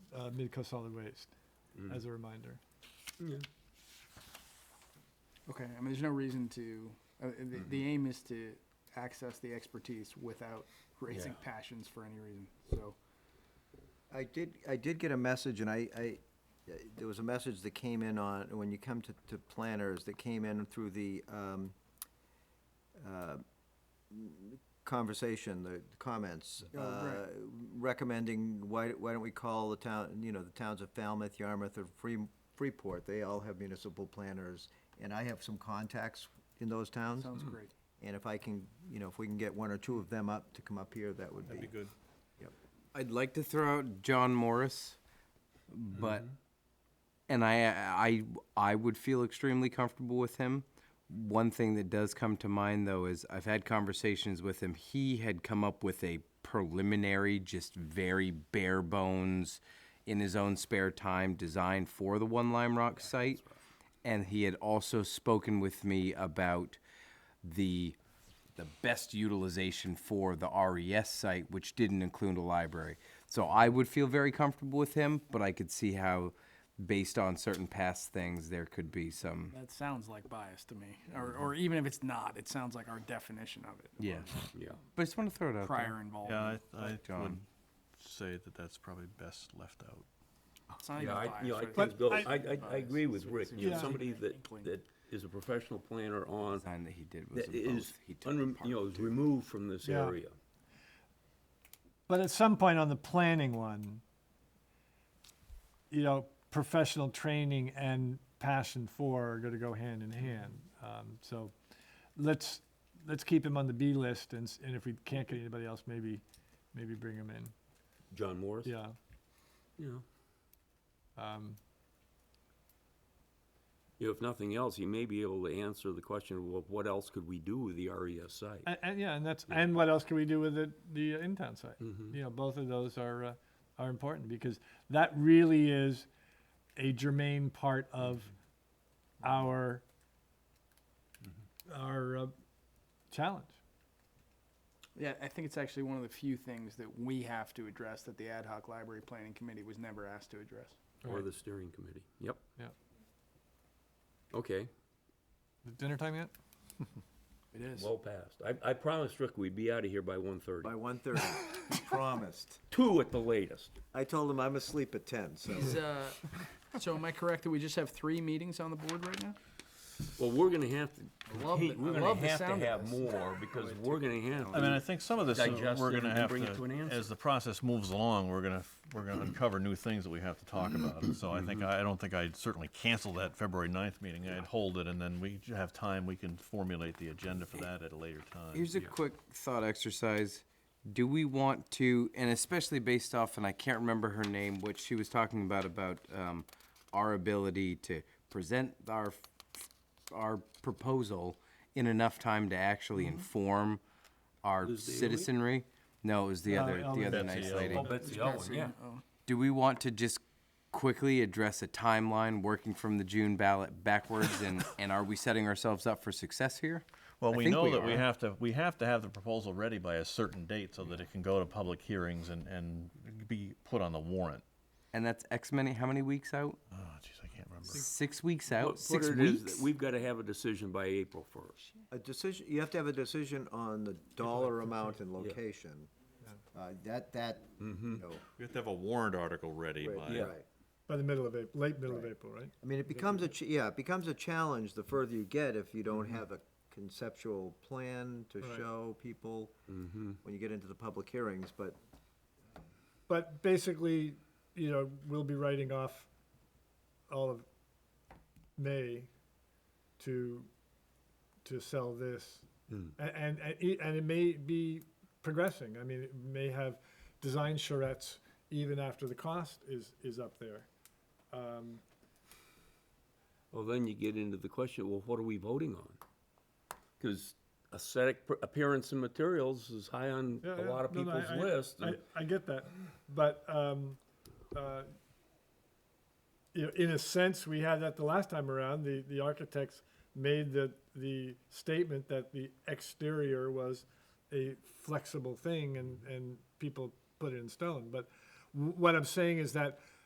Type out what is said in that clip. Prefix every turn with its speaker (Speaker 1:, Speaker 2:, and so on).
Speaker 1: uh, Midco Solid Waste as a reminder.
Speaker 2: Okay, I mean, there's no reason to, uh, uh, the, the aim is to access the expertise without raising
Speaker 3: Yeah.
Speaker 2: passions for any reason, so.
Speaker 4: I did, I did get a message, and I, I, there was a message that came in on, when you come to, to planners, that came in through the, um, uh, conversation, the comments.
Speaker 2: Oh, right.
Speaker 4: uh, Recommending, why, why don't we call the town, you know, the towns of Falmouth, Yarmouth, or Free- Freeport, they all have municipal planners, and I have some contacts in those towns.
Speaker 2: Sounds great.
Speaker 4: And if I can, you know, if we can get one or two of them up to come up here, that would be.
Speaker 3: That'd be good.
Speaker 4: Yep.
Speaker 5: I'd like to throw out John Morris, but and I I I would feel extremely comfortable with him. One thing that does come to mind though is I've had conversations with him. He had come up with a preliminary, just very bare bones, in his own spare time, design for the One Lime Rock site, and he had also spoken with me about the the best utilization for the RES site, which didn't include a library. So I would feel very comfortable with him, but I could see how, based on certain past things, there could be some.
Speaker 2: That sounds like bias to me, or, or even if it's not, it sounds like our definition of it.
Speaker 5: Yeah. Yeah. But I just want to throw it out
Speaker 2: Prior
Speaker 5: there.
Speaker 2: involvement.
Speaker 6: Yeah, I, I would
Speaker 5: John.
Speaker 6: say that that's probably best left out.
Speaker 2: It's not even
Speaker 3: Yeah, I,
Speaker 2: bias,
Speaker 3: you know, I
Speaker 2: right?
Speaker 3: think, Bill, I,
Speaker 1: I-
Speaker 3: I, I agree with Rick, you
Speaker 1: Yeah.
Speaker 3: know, somebody that,
Speaker 2: Inkling.
Speaker 3: that is a professional planner on,
Speaker 5: Design that he did was
Speaker 3: that
Speaker 5: in
Speaker 3: is,
Speaker 5: both. He took
Speaker 3: unrem-
Speaker 5: part.
Speaker 3: you know, is removed from this
Speaker 1: Yeah.
Speaker 3: area.
Speaker 1: But at some point on the planning one, you know, professional training and passion for are going to go hand in hand. Um, so let's let's keep him on the B list, and, s- and if we can't get anybody else, maybe maybe bring him in.
Speaker 3: John Morris?
Speaker 1: Yeah.
Speaker 3: Yeah.
Speaker 1: Um,
Speaker 3: You know, if nothing else, he may be able to answer the question, of, well, what else could we do with the RES site?
Speaker 1: and, and yeah, and that's and what else can we do with it, the uh, in-town site? You know, both of those are uh, are important because that really is a germane part of Mm-hmm. our our uh, challenge.
Speaker 2: Yeah, I think it's actually one of the few things that we have to address that the ad hoc library planning committee was never asked to address.
Speaker 3: Or the steering committee, yep,
Speaker 1: Yeah.
Speaker 3: okay,
Speaker 1: Is it dinner time yet?
Speaker 2: It is.
Speaker 3: well passed. I, I promised Rick we'd be out of here by one thirty,
Speaker 4: By one thirty, promised.
Speaker 3: two at the latest.
Speaker 4: I told him I'm asleep at ten, so.
Speaker 2: Is, uh, so am I correct that we just have three meetings on the board right now?
Speaker 3: Well, we're gonna have to,
Speaker 2: I love
Speaker 3: continue-
Speaker 2: the- I
Speaker 3: we're
Speaker 2: love
Speaker 3: gonna
Speaker 2: the
Speaker 3: have
Speaker 2: sound
Speaker 3: to
Speaker 2: of
Speaker 3: have
Speaker 2: this.
Speaker 3: more, because we're gonna have
Speaker 6: I mean, I
Speaker 3: to,
Speaker 6: think some of this, uh,
Speaker 3: Digest
Speaker 6: we're
Speaker 3: it
Speaker 6: gonna
Speaker 3: and
Speaker 6: have
Speaker 3: bring it to an
Speaker 6: to,
Speaker 3: answer.
Speaker 6: as the process moves along, we're gonna, f- we're gonna uncover new things that we have to talk
Speaker 3: Mm-hmm.
Speaker 6: about. And So I think, I I don't think I'd certainly cancel that February 9th meeting. I'd hold it, and then we j- have time, we can formulate the agenda for that at a later time.
Speaker 5: Here's a quick thought exercise. Do we want to, and especially based off, and I can't remember her name, what she was talking about about um, our ability to present our our proposal in enough time to actually inform our citizenry. No, it was the other the other
Speaker 6: Ellen.
Speaker 5: nice
Speaker 6: Betsy
Speaker 5: lady.
Speaker 6: Ellen.
Speaker 3: Betsy Owen, yeah.
Speaker 5: Do we want to just quickly address a timeline working from the June ballot backwards, and and are we setting ourselves up for success here?
Speaker 6: Well,
Speaker 5: I
Speaker 6: we
Speaker 5: think
Speaker 6: know that we
Speaker 5: are.
Speaker 6: have to, we have to have the proposal ready by a certain date so that it can go to public hearings and, and be put on the warrant.
Speaker 5: and that's X many. How many weeks out?
Speaker 6: Oh, jeez, I can't remember.
Speaker 5: Six weeks out.
Speaker 3: Put- put
Speaker 5: Six
Speaker 3: it as
Speaker 5: weeks.
Speaker 3: that We've gotta have a decision by April first.
Speaker 4: A decision, you have to have a decision on the dollar amount and location. Uh, That, that, you know,
Speaker 7: You have to have a warrant article ready
Speaker 4: right,
Speaker 7: by,
Speaker 4: right.
Speaker 1: By the middle of April, late middle of April, right?
Speaker 4: I mean, it becomes a, ch- yeah, it becomes a challenge the further you get if you don't have a conceptual plan to
Speaker 1: Right.
Speaker 4: show people when you get into the public hearings, but
Speaker 1: But basically, you know, we'll be writing off all of May to to sell this, A- and and it, and it may be progressing. I mean, it may have design charrettes even after the cost is is up there. Um,
Speaker 3: Well, then you get into the question, well, what are we voting on? Cause aesthetic per- appearance and materials is high on
Speaker 1: yeah,
Speaker 3: a
Speaker 1: yeah.
Speaker 3: lot of
Speaker 1: No, no, I-
Speaker 3: people's
Speaker 1: I-
Speaker 3: list.
Speaker 1: I,
Speaker 3: and-
Speaker 1: I get that, but um, uh, you know, in a sense, we had that the last time around. The the architects made the the statement that the exterior was a flexible thing, and and people put it in stone. But w- what I'm saying is that